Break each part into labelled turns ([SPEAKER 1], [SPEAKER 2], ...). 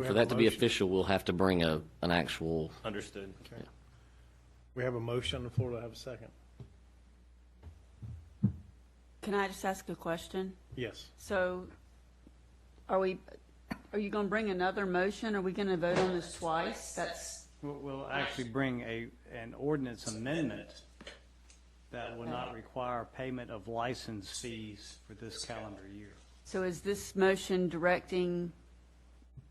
[SPEAKER 1] we
[SPEAKER 2] for
[SPEAKER 1] have a
[SPEAKER 2] that to be
[SPEAKER 1] motion?
[SPEAKER 2] official, we'll have to bring a, an actual,
[SPEAKER 3] Understood.
[SPEAKER 1] We have a motion on the floor. Do I have a second?
[SPEAKER 4] Can I just ask a question?
[SPEAKER 1] Yes.
[SPEAKER 4] So are we, are you going to bring another motion? Are we going to vote on this twice? That's,
[SPEAKER 5] We'll, we'll actually bring a, an ordinance amendment that will not require payment of license fees for Uh, this calendar year.
[SPEAKER 4] so is this motion directing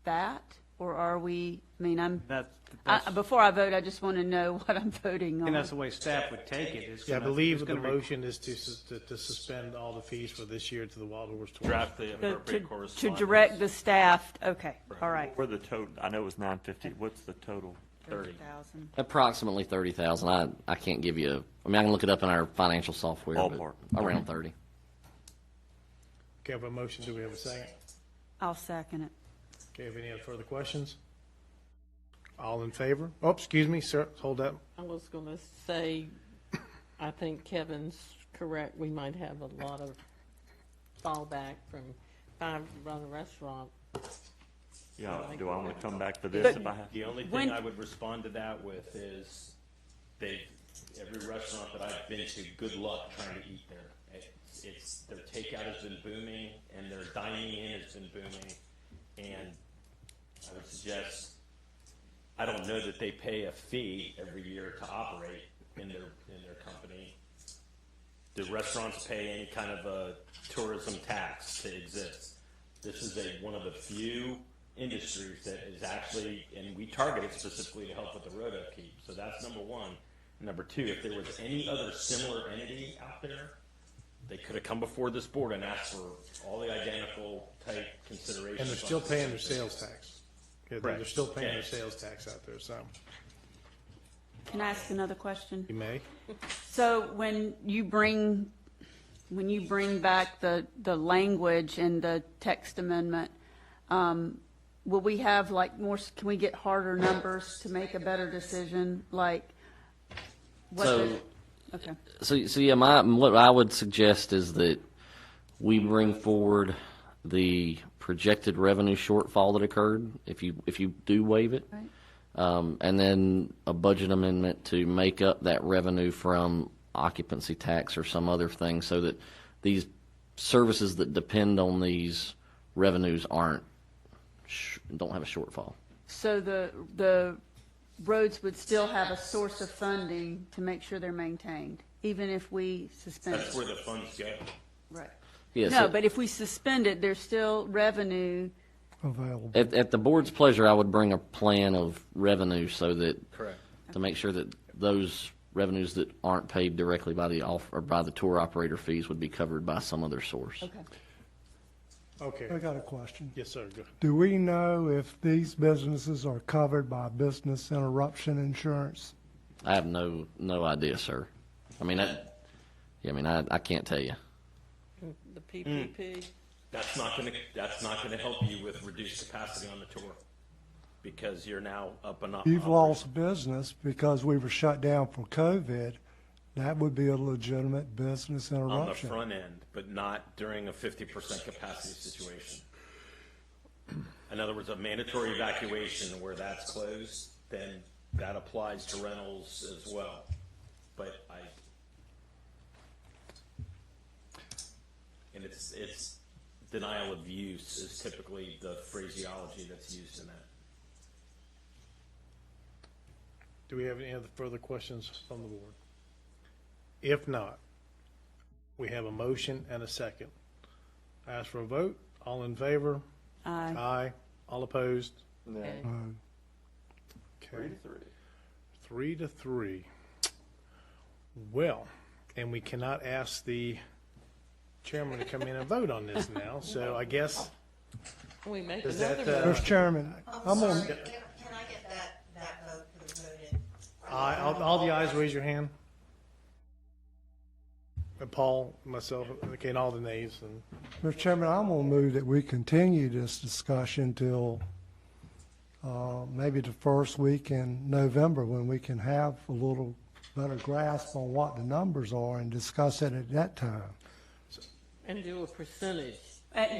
[SPEAKER 4] that? Or are we, I mean, I'm,
[SPEAKER 5] That, that's,
[SPEAKER 4] I-
[SPEAKER 5] I
[SPEAKER 4] before I vote, I just want to know what I'm voting
[SPEAKER 5] think that's
[SPEAKER 4] on.
[SPEAKER 5] the way staff would take it. It's
[SPEAKER 1] Yeah, I
[SPEAKER 5] gonna-
[SPEAKER 1] believe
[SPEAKER 5] it's
[SPEAKER 1] the
[SPEAKER 5] gonna re-
[SPEAKER 1] motion is to, sus- to- to suspend all the fees for this year to the Wild Horse Tours.
[SPEAKER 3] Draft the
[SPEAKER 4] To-
[SPEAKER 3] appropriate
[SPEAKER 4] To
[SPEAKER 3] correspondence.
[SPEAKER 4] to direct the staff, okay, all right.
[SPEAKER 6] Where the total, I know it was nine fifty, what's the total?
[SPEAKER 3] Thirty.
[SPEAKER 4] 30,000.
[SPEAKER 2] approximately thirty thousand. I, I can't give you, a- I mean, I can look it up in our financial software. but
[SPEAKER 6] Ballpark.
[SPEAKER 2] Around thirty.
[SPEAKER 1] Okay, I have a motion. Do we have a second?
[SPEAKER 4] I'll second it.
[SPEAKER 1] Okay, have any other further questions? All in favor? Oh, excuse me, sir, hold up.
[SPEAKER 7] I was going to say, I think Kevin's correct. We might have a lot of fallback from Five Brother Restaurant.
[SPEAKER 6] Yeah, do I want to come back for this if I have?
[SPEAKER 3] The only
[SPEAKER 4] When-
[SPEAKER 3] thing I would respond to that with is they, every restaurant that I've been to, good luck trying to eat there. It's, it's, their takeout has been booming and their dining in has been booming. And I would suggest, I don't know that they pay a fee every year to operate in their, in their company. Do restaurants pay any kind of a tourism tax to exist? This is a, one of the few industries that is actually, and we target it specifically to help with the road upkeep. So that's number one. Number two, if there was any other similar entity out there, they could have come before this board and asked for all the identical type considerations.
[SPEAKER 1] And they're still paying their sales tax. Yeah, They're they're
[SPEAKER 3] Correct.
[SPEAKER 1] still paying their
[SPEAKER 3] Okay.
[SPEAKER 1] sales tax out there, so
[SPEAKER 4] Can I ask another question?
[SPEAKER 1] you may.
[SPEAKER 4] So when you bring, when you bring back the, the language in the text amendment, um, will we have like more, s- can we get harder numbers to make a better decision, like? what the- Okay,
[SPEAKER 2] So, so yeah, my, what I would suggest is that we bring forward the projected revenue shortfall that occurred, if you, if you do waive it.
[SPEAKER 4] Right.
[SPEAKER 2] Um, and then a budget amendment to make up that revenue from occupancy tax or some other thing so that these services that depend on these revenues aren't, sh- don't have a shortfall.
[SPEAKER 4] so the, the roads would still have a source of funding to make sure they're maintained, even if we suspend
[SPEAKER 3] That's where
[SPEAKER 4] it?
[SPEAKER 3] the funds go.
[SPEAKER 4] Right.
[SPEAKER 2] Yeah,
[SPEAKER 4] No,
[SPEAKER 2] so-
[SPEAKER 4] but if we suspend it, there's still revenue
[SPEAKER 8] available.
[SPEAKER 2] At, at the board's pleasure, I would bring a plan of revenue so that.
[SPEAKER 3] Correct.
[SPEAKER 2] To make sure that those revenues that aren't paid directly by the off, or by the tour operator fees would be covered by some other source.
[SPEAKER 4] Okay.
[SPEAKER 1] Okay,
[SPEAKER 8] I got a question.
[SPEAKER 1] yes, sir, go ahead.
[SPEAKER 8] Do we know if these businesses are covered by business interruption insurance?
[SPEAKER 2] I have no, no idea, sir. I mean, I, yeah, I mean, I, I can't tell you.
[SPEAKER 7] The PPP,
[SPEAKER 3] That's not gonna, that's not gonna help you with reduced capacity on the tour because you're now up and up.
[SPEAKER 8] You've lost business because we were shut down for COVID. That would be a legitimate business
[SPEAKER 3] on the
[SPEAKER 8] interruption.
[SPEAKER 3] front end, but not during a fifty percent capacity situation. In other words, a mandatory evacuation where that's closed, then that applies to rentals as well. But I. And it's, it's denial of use is typically the phraseology that's used in that.
[SPEAKER 1] Do we have any other further questions from the board? If not, we have a motion and a second. I ask for a vote. All in favor?
[SPEAKER 4] Aye.
[SPEAKER 1] Aye. All opposed?
[SPEAKER 8] Uh,
[SPEAKER 1] Okay. Three to three. Well, and we cannot ask the chairman to come in and vote on this now, so I guess,
[SPEAKER 7] Can we make
[SPEAKER 1] Is that,
[SPEAKER 7] another.
[SPEAKER 1] uh,
[SPEAKER 8] Mr. Chairman,
[SPEAKER 9] I'm
[SPEAKER 8] I'm
[SPEAKER 9] sorry,
[SPEAKER 8] on,
[SPEAKER 9] can, can I get that, that vote for the voted?
[SPEAKER 1] aye, all, all the ayes, raise your hand. And Paul, myself, okay, and all the nays, and
[SPEAKER 8] Mr. Chairman, I'm gonna move that we continue this discussion till, uh, maybe the first week in November, when we can have a little better grasp on what the numbers are and discuss it at that time.
[SPEAKER 7] and do a percentage?
[SPEAKER 4] Uh,